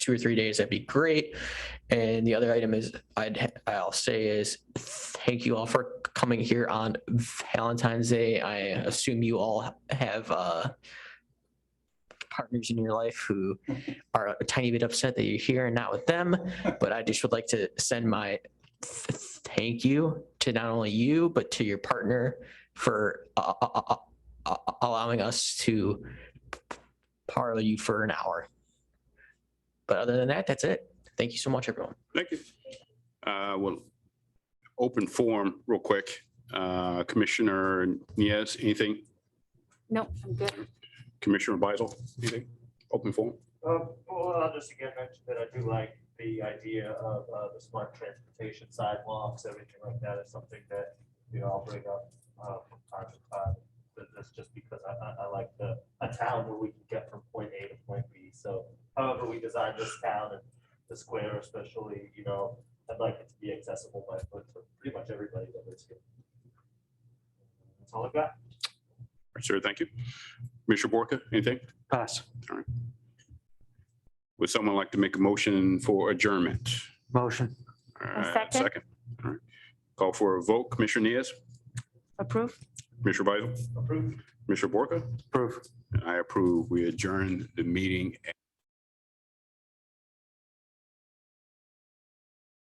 two or three days, that'd be great. And the other item is, I'd, I'll say is, thank you all for coming here on Valentine's Day. I assume you all have, uh, partners in your life who are a tiny bit upset that you're here and not with them. But I just would like to send my th- thank you to not only you, but to your partner for uh, uh, uh, uh, uh, allowing us to parlor you for an hour. But other than that, that's it. Thank you so much, everyone. Thank you. Uh, Well, open forum real quick. Uh, Commissioner Nieves, anything? Nope, I'm good. Commissioner Beisel, anything? Open forum? Uh, Well, I'll just again mention that I do like the idea of uh, the smart transportation sidewalks, everything like that is something that we all bring up uh, from time to time. But that's just because I, I, I like the, a town where we can get from point A to point B. So however we design this town and the square especially, you know, I'd like it to be accessible by foot for pretty much everybody that lives here. That's all I've got. Sir, thank you. Commissioner Borka, anything? Pass. Would someone like to make a motion for adjournment? Motion. All right, second. All right. Call for a vote. Commissioner Nieves, Approve? Commissioner Beisel, Approved. Commissioner Borka? Proof. I approve. We adjourn the meeting